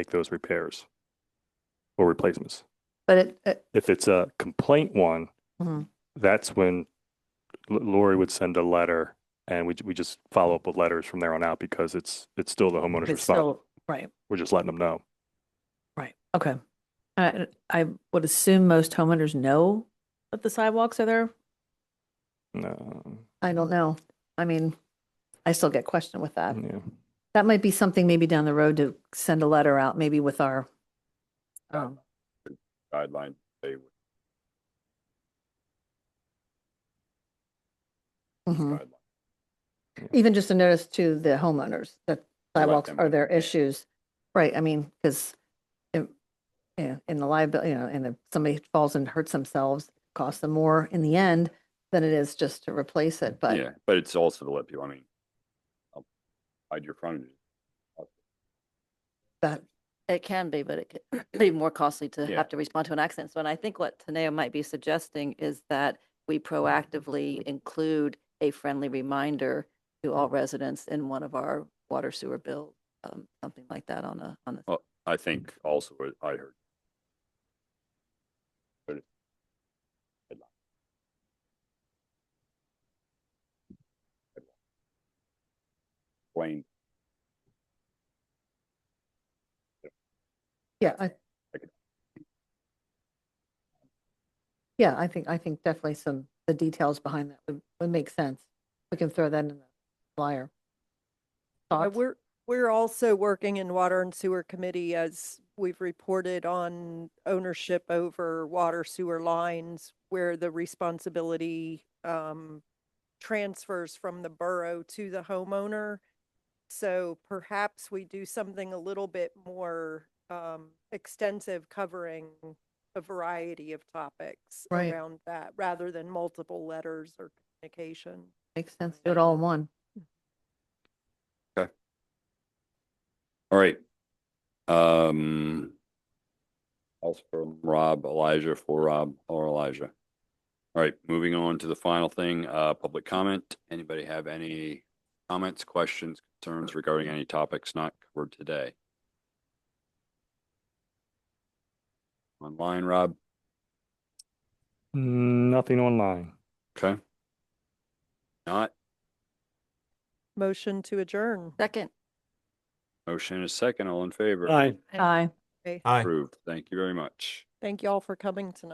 make those repairs or replacements. But it, it- If it's a complaint one, Mhm. that's when L- Lori would send a letter and we, we just follow up with letters from there on out because it's, it's still the homeowner's it's response. still, right, We're just letting them know. right, okay. I, I would assume most homeowners know that the sidewalks are there. No, I don't know. I mean, I still get questioned with Uh, that. yeah. That might be something maybe down the road to send a letter out, maybe with our, um, guideline. They would mhm. guideline. even just a notice to the homeowners that To let sidewalks them are know, their yeah. issues. Right, I mean, because yeah, in the liability, you know, and if somebody falls and hurts themselves, costs them more in the end than it is just to replace it, but Yeah, but it's also to let people, I mean, I'll hide your frontage. that, It can be, but it could be more costly to Yeah. have to respond to an accident. So, and I think what Taneo might be suggesting is that we proactively include a friendly reminder to all residents in one of our water sewer bill, um, something like that on a, on a, Well, I think also what I heard. But it- Guideline. Guideline. Wayne, yeah, I. Okay. Yeah, I think, I think definitely some, the details behind that would, would make sense. We can throw that in the flyer. Uh, Thoughts? We're, we're also working in Water and Sewer Committee as we've reported on ownership over water sewer lines where the responsibility um, transfers from the borough to the homeowner. So perhaps we do something a little bit more um, extensive covering a variety of topics Right. around that, rather than multiple letters or communication. Makes sense, do it all in one. all right. Um. Also from Rob, Elijah, for Rob or Elijah. All right, moving on to the final thing, uh, public comment. Anybody have any comments, questions, concerns regarding any topics not covered today? Online, Rob, Nothing online. okay? Not, Motion to adjourn. second. motion is second, all in favor? Aye. Aye. Okay. Aye. Approved, thank you very much. Thank you all for coming tonight.